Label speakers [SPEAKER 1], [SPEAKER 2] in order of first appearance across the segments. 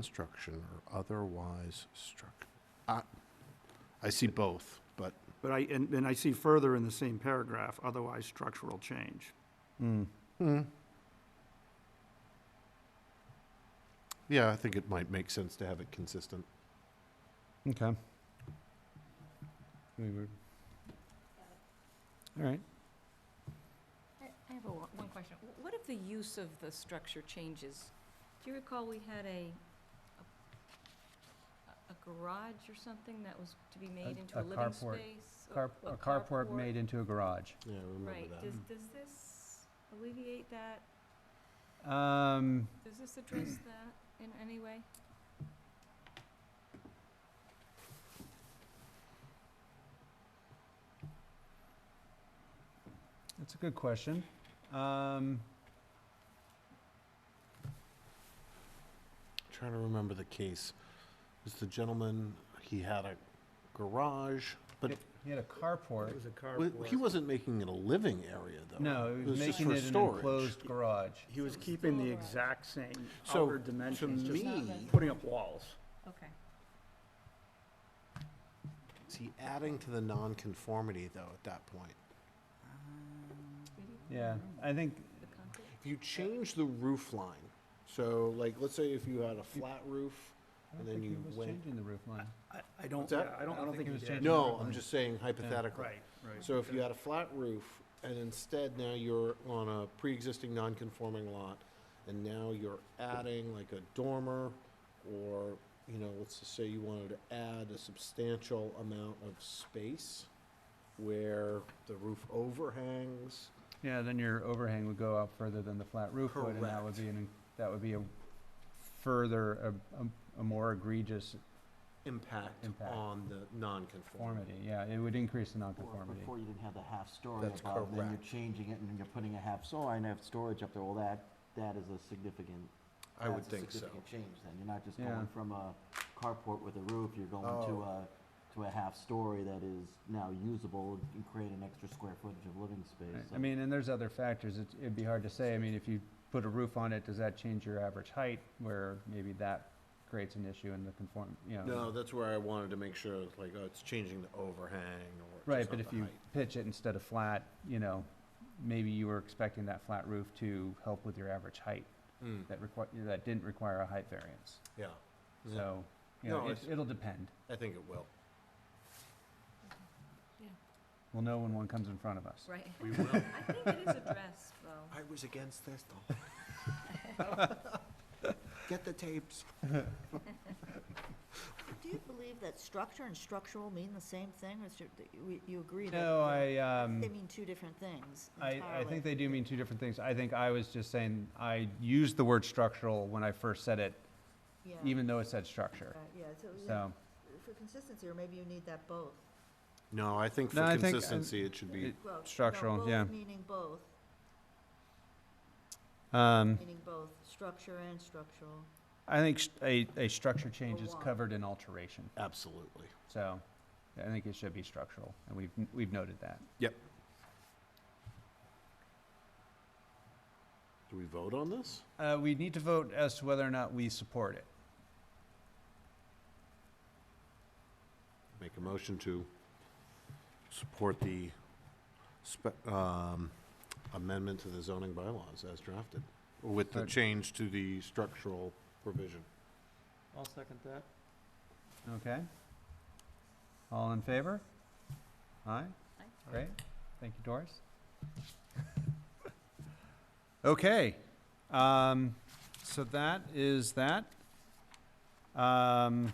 [SPEAKER 1] construction or otherwise struck. I, I see both, but
[SPEAKER 2] But I, and, and I see further in the same paragraph, otherwise structural change.
[SPEAKER 3] Hmm,
[SPEAKER 1] Hmm. yeah, I think it might make sense to have it consistent.
[SPEAKER 3] Okay. We were- All right.
[SPEAKER 4] I have a, one one question. Wh- What if the use of the structure changes? Do you recall we had a, a- a garage or something that was to be made into
[SPEAKER 3] a
[SPEAKER 4] a living
[SPEAKER 3] carport.
[SPEAKER 4] space?
[SPEAKER 3] Car- A carport made into a garage.
[SPEAKER 1] Yeah, I remember
[SPEAKER 4] Right, does, does this alleviate that?
[SPEAKER 3] Um,
[SPEAKER 4] Does this address that in any way?
[SPEAKER 3] That's a good question. Um,
[SPEAKER 1] Trying to remember the case. Was the gentleman, he had a garage, but
[SPEAKER 3] He had a carport.
[SPEAKER 2] a
[SPEAKER 1] w- he wasn't making it a living area, though.
[SPEAKER 3] No,
[SPEAKER 1] It
[SPEAKER 3] he was
[SPEAKER 1] just
[SPEAKER 3] making
[SPEAKER 1] for
[SPEAKER 3] it an
[SPEAKER 1] storage.
[SPEAKER 3] enclosed garage.
[SPEAKER 2] He was
[SPEAKER 4] So it's
[SPEAKER 2] keeping
[SPEAKER 4] still
[SPEAKER 2] the
[SPEAKER 4] a garage.
[SPEAKER 2] exact same
[SPEAKER 1] So,
[SPEAKER 2] outward
[SPEAKER 1] to
[SPEAKER 2] dimensions, just
[SPEAKER 1] me-
[SPEAKER 2] putting up walls.
[SPEAKER 4] Okay.
[SPEAKER 1] Is he adding to the nonconformity, though, at that point?
[SPEAKER 2] Um,
[SPEAKER 4] Really?
[SPEAKER 3] Yeah, I think,
[SPEAKER 4] The concrete?
[SPEAKER 1] If you change the roof line, so like, let's say if you had a flat roof,
[SPEAKER 3] I
[SPEAKER 1] and
[SPEAKER 3] don't
[SPEAKER 1] then
[SPEAKER 3] think he
[SPEAKER 1] you
[SPEAKER 3] was
[SPEAKER 1] went.
[SPEAKER 3] changing the roof line.
[SPEAKER 2] I, I don't,
[SPEAKER 1] What's that?
[SPEAKER 2] yeah, I don't, I don't think he
[SPEAKER 3] was
[SPEAKER 2] did.
[SPEAKER 3] changing-
[SPEAKER 1] No,
[SPEAKER 3] roof
[SPEAKER 1] I'm
[SPEAKER 3] line.
[SPEAKER 1] just saying hypothetically.
[SPEAKER 2] Right, right.
[SPEAKER 1] So if you had a flat roof, and instead now you're on a pre-existing non-conforming lot, and now you're adding like a dormer, or, you know, let's just say you wanted to add a substantial amount of space where the roof overhangs,
[SPEAKER 3] Yeah, then your overhang would go out further than the flat roof would, and that would
[SPEAKER 1] Correct.
[SPEAKER 3] be an, that would be a further, a, a- a more egregious
[SPEAKER 1] impact
[SPEAKER 3] Impact.
[SPEAKER 1] on the non-conformity.
[SPEAKER 3] conformity. Yeah, it would increase the
[SPEAKER 5] Or if
[SPEAKER 3] nonconformity.
[SPEAKER 5] Before you didn't have the half-story
[SPEAKER 1] That's
[SPEAKER 5] above, then you're
[SPEAKER 1] correct.
[SPEAKER 5] changing it, and then you're putting a half-story and have storage up there, well, that, that is a significant,
[SPEAKER 1] I would
[SPEAKER 5] that's a
[SPEAKER 1] think so.
[SPEAKER 5] significant change then. You're not just
[SPEAKER 3] Yeah.
[SPEAKER 5] going from a carport with a roof, you're going to
[SPEAKER 1] Oh.
[SPEAKER 5] a, to a half-story that is now usable and create an extra square footage of living
[SPEAKER 3] Right.
[SPEAKER 5] space.
[SPEAKER 3] I
[SPEAKER 5] so-
[SPEAKER 3] mean, and there's other factors, it's, it'd be hard to say, I mean, if you put a roof on it, does that change your average height? Where maybe that creates an issue in the conform, you know.
[SPEAKER 1] No, that's where I wanted to make sure, it's like, oh, it's changing the overhang or.
[SPEAKER 3] Right,
[SPEAKER 1] just
[SPEAKER 3] but
[SPEAKER 1] not
[SPEAKER 3] if
[SPEAKER 1] the
[SPEAKER 3] you
[SPEAKER 1] height.
[SPEAKER 3] pitch it instead of flat, you know, maybe you were expecting that flat roof to help with your average height,
[SPEAKER 1] Mm,
[SPEAKER 3] that require, that didn't require a height variance,
[SPEAKER 1] Yeah, Yeah.
[SPEAKER 3] so, you know,
[SPEAKER 1] No,
[SPEAKER 3] it,
[SPEAKER 1] it's-
[SPEAKER 3] it'll depend.
[SPEAKER 1] I think it will.
[SPEAKER 3] We'll know when one comes in front of us.
[SPEAKER 4] Right.
[SPEAKER 1] We will.
[SPEAKER 4] I think it is addressed, though.
[SPEAKER 1] I was against this though. Get the tapes.
[SPEAKER 6] Do you believe that structure and structural mean the same thing, or is it- that you- you agree that?
[SPEAKER 3] No,
[SPEAKER 6] that
[SPEAKER 3] I, um.
[SPEAKER 6] They mean two different things
[SPEAKER 3] I,
[SPEAKER 6] entirely?
[SPEAKER 3] I think they do mean two different things. I think I was just saying, I used the word structural when I first said it,
[SPEAKER 6] Yeah,
[SPEAKER 3] even though it said structure.
[SPEAKER 6] right, Yeah, so, yeah,
[SPEAKER 3] So,
[SPEAKER 6] for consistency, or maybe you need that both.
[SPEAKER 1] No, I think
[SPEAKER 3] No,
[SPEAKER 1] for
[SPEAKER 3] I think, uh,
[SPEAKER 1] consistency, it should be,
[SPEAKER 3] it-
[SPEAKER 6] Well, no,
[SPEAKER 3] Structural,
[SPEAKER 6] both
[SPEAKER 3] yeah.
[SPEAKER 6] Meaning both,
[SPEAKER 3] um,
[SPEAKER 6] meaning both, structure and structural.
[SPEAKER 3] I think st- a, a structure change
[SPEAKER 6] Or
[SPEAKER 3] is
[SPEAKER 6] one.
[SPEAKER 3] covered in alteration,
[SPEAKER 1] absolutely.
[SPEAKER 3] so I think it should be structural, and we've, we've noted that.
[SPEAKER 1] Do we vote on this?
[SPEAKER 3] Uh, we need to vote as to whether or not we support it.
[SPEAKER 1] Make a motion to support the spe- um, amendment to the zoning bylaws as drafted, with the
[SPEAKER 3] Right.
[SPEAKER 1] change to the structural provision.
[SPEAKER 2] I'll second that.
[SPEAKER 3] Okay? All in favor? Aye?
[SPEAKER 4] Aye.
[SPEAKER 3] Great. Thank you, Doris. Okay, um, so that is that. Um,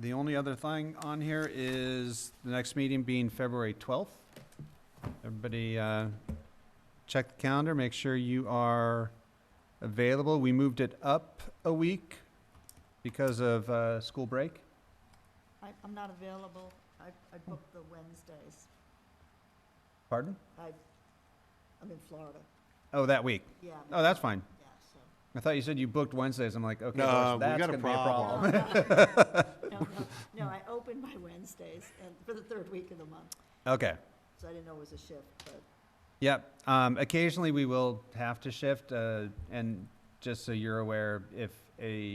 [SPEAKER 3] the only other thing on here is the next meeting being February twelfth. Everybody, uh, check the calendar, make sure you are available. We moved it up a week because of, uh, school break.
[SPEAKER 6] I, I'm not available, I, I booked the Wednesdays,
[SPEAKER 3] Pardon?
[SPEAKER 6] I, I'm in Florida,
[SPEAKER 3] Oh, that week.
[SPEAKER 6] yeah. I'm in
[SPEAKER 3] Oh, that's
[SPEAKER 6] Florida.
[SPEAKER 3] fine.
[SPEAKER 6] Yeah, so.
[SPEAKER 3] I thought you said you booked Wednesdays. I'm like, okay,
[SPEAKER 1] No,
[SPEAKER 3] Doris,
[SPEAKER 1] we
[SPEAKER 3] that's
[SPEAKER 1] got a
[SPEAKER 3] gonna be a problem.
[SPEAKER 6] No, no, No, I opened my Wednesdays, and, for the third week of the month,
[SPEAKER 3] Okay.
[SPEAKER 6] so I didn't know it was a shift, but
[SPEAKER 3] Yep. Um, occasionally we will have to shift, uh, and just so you're aware, if a